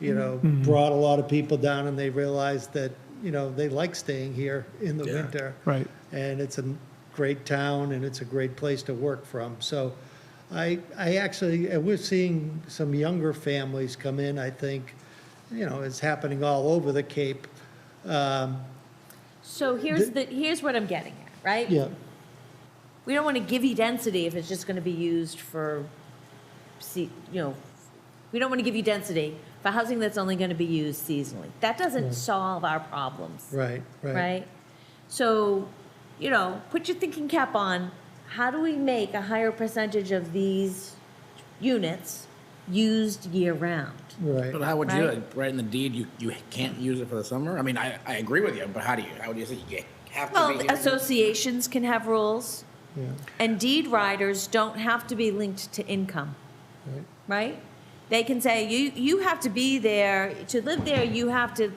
you know, brought a lot of people down and they realized that, you know, they like staying here in the Yeah. winter. Right. And it's a great town and it's a great place to work from. So I, I actually, and we're seeing some younger families come in, I think, you know, it's happening all over the Cape. Um, So here's the, here's what I'm getting at, right? Yeah, We don't want to give you density if it's just going to be used for, see, you know, we don't want to give you density for housing that's only going to be used seasonally. That doesn't solve our problems. right, right. right? So, you know, put your thinking cap on. How do we make a higher percentage of these units used year round? Right. But how would you, Right. like, write in the deed, you, you can't use it for the summer? I mean, I, I agree with you, but how do you, how would you say you have to Well, uh, be? here? associations can have rules, Yeah. and deed riders don't have to be linked to income, Right. right? They can say, you, you have to be there, to live there, you have to,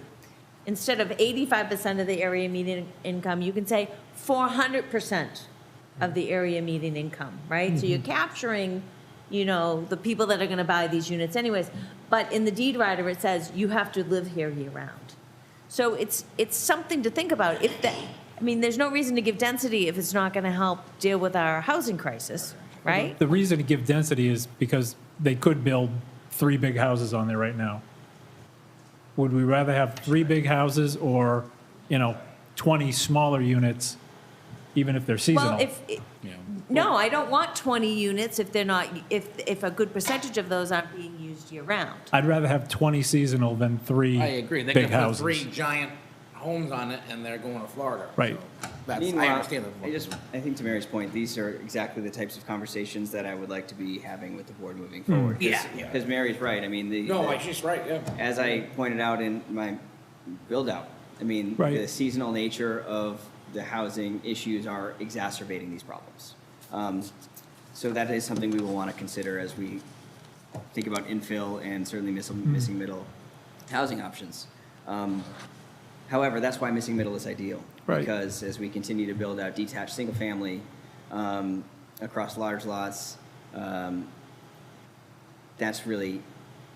instead of eighty-five percent of the area median income, you can say four hundred percent of the area median income, right? So you're capturing, you know, the people that are gonna buy these units anyways. But in the deed rider, it says you have to live here year-round. So it's, it's something to think about. If that, I mean, there's no reason to give density if it's not gonna help deal with our housing crisis, right? The reason to give density is because they could build three big houses on there right now. Would we rather have three big houses or, you know, 20 smaller units, even if they're Well, Mm-hmm. seasonal? if, no, I don't want 20 units if they're not, if, if a good percentage of those aren't being used year-round. I'd rather have 20 seasonal than three I agree, they big could put houses. three giant homes on it and they're going to Florida. Right. so That's, I Meanwhile, understand I that. just, I think to Mary's point, these are exactly the types of conversations that I would like to be having with the board moving forward. Mm. Yeah, yeah. Because Mary's right, I mean, the. No, I- she's right, yeah. As I pointed out in my build-out, I mean, Right. the seasonal nature of the housing issues are exacerbating these problems. Um, So that is something we will want to consider as we think about infill and certainly miss- missing middle housing options. Um, However, that's why missing middle is ideal. Right. Because as we continue to build out detached single-family um, across large lots, um, that's really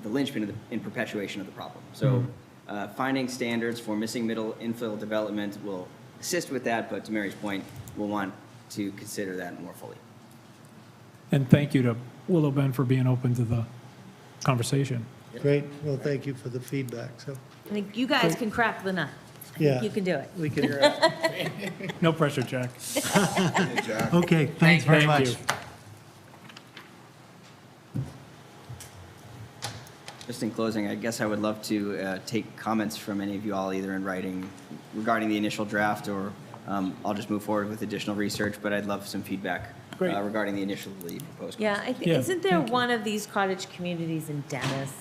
the linchpin of the, in perpetuation of the problem. So uh, finding standards for missing middle infill development will assist with that, but to Mary's point, we'll want to consider that more fully. And thank you to Willow Bend for being open to the conversation. Great. Well, thank you for the feedback. So, I think you guys can crack the nut. I think Yeah. You can do it. we can, No pressure, Jack. okay, thanks very Thank much. you. Just in closing, I guess I would love to uh, take comments from any of you all, either in writing regarding the initial draft, or um, I'll just move forward with additional research, but I'd love some feedback Great. uh, regarding the initially proposed. Yeah, I think, Yeah, isn't there one of these cottage communities in Dennis?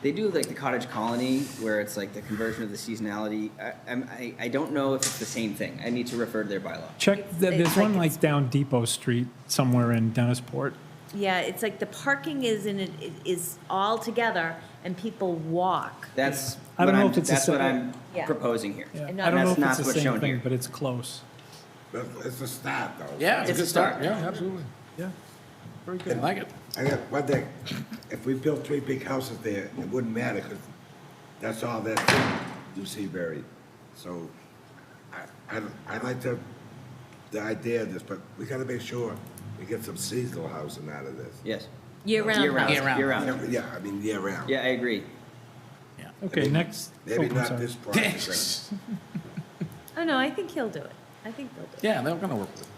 They do like the cottage colony, where it's like the conversion of the seasonality. I, I'm- I, I don't know if it's the same thing. I need to refer to their bylaw. Check, It's- th- it's there's one like like down Depot Street somewhere in Dennisport. Yeah, it's like the parking is in, it it is all together and people walk. That's I what don't know I'm, if it's the that's what I'm same- Yeah. proposing here. Yeah. And I don't know that's if not it's the what's same shown thing, here. but it's close. That's- It's a start, though. Yeah, it's a It's a good start, start. yeah, absolutely. Yeah. Very I good. like it. I got one thing, if we built three big houses there, it wouldn't matter, because that's all that you see buried. So I, I, I like the, the idea of this, but we gotta make sure we get some seasonal housing out of this. Yes. Year-round Year-round, housing. Year-round. year-round. Yeah, I mean, year round. Yeah, I agree. Okay, next. oh, Maybe I'm not sorry. this project. but- Oh, no, I think he'll do it. I think they'll do it. Yeah, they're gonna work with it.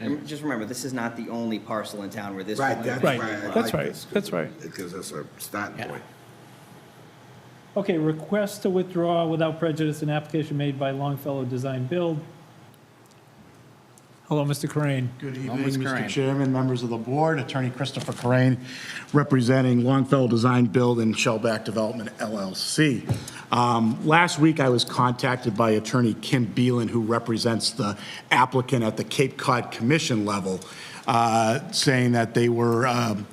And just remember, this is not the only parcel in town where this. Right, that's why Right, I that's like right, this, 'cause that's right. It gives us a starting Yeah. point. Okay, request to withdraw without prejudice an application made by Longfellow Design Build. Hello, Mr. Crane. Good Hello, evening, Ms. Curran. Mr. Chairman, members of the board, Attorney Christopher Crane, representing Longfellow Design Build and Shellback Development LLC. Um, Last week, I was contacted by Attorney Kim Beelan, who represents the applicant at the Cape Cod Commission level, uh, saying that they were um,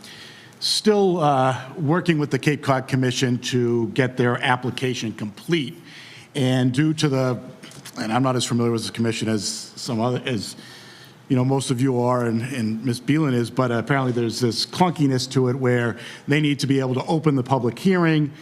still uh, working with the Cape Cod Commission to get their application complete. And due to the, and I'm not as familiar with this commission as some other, as you know, most of you are and, and Ms. Beelan is, but apparently there's this clunkiness to it where they need to be able to open the public hearing,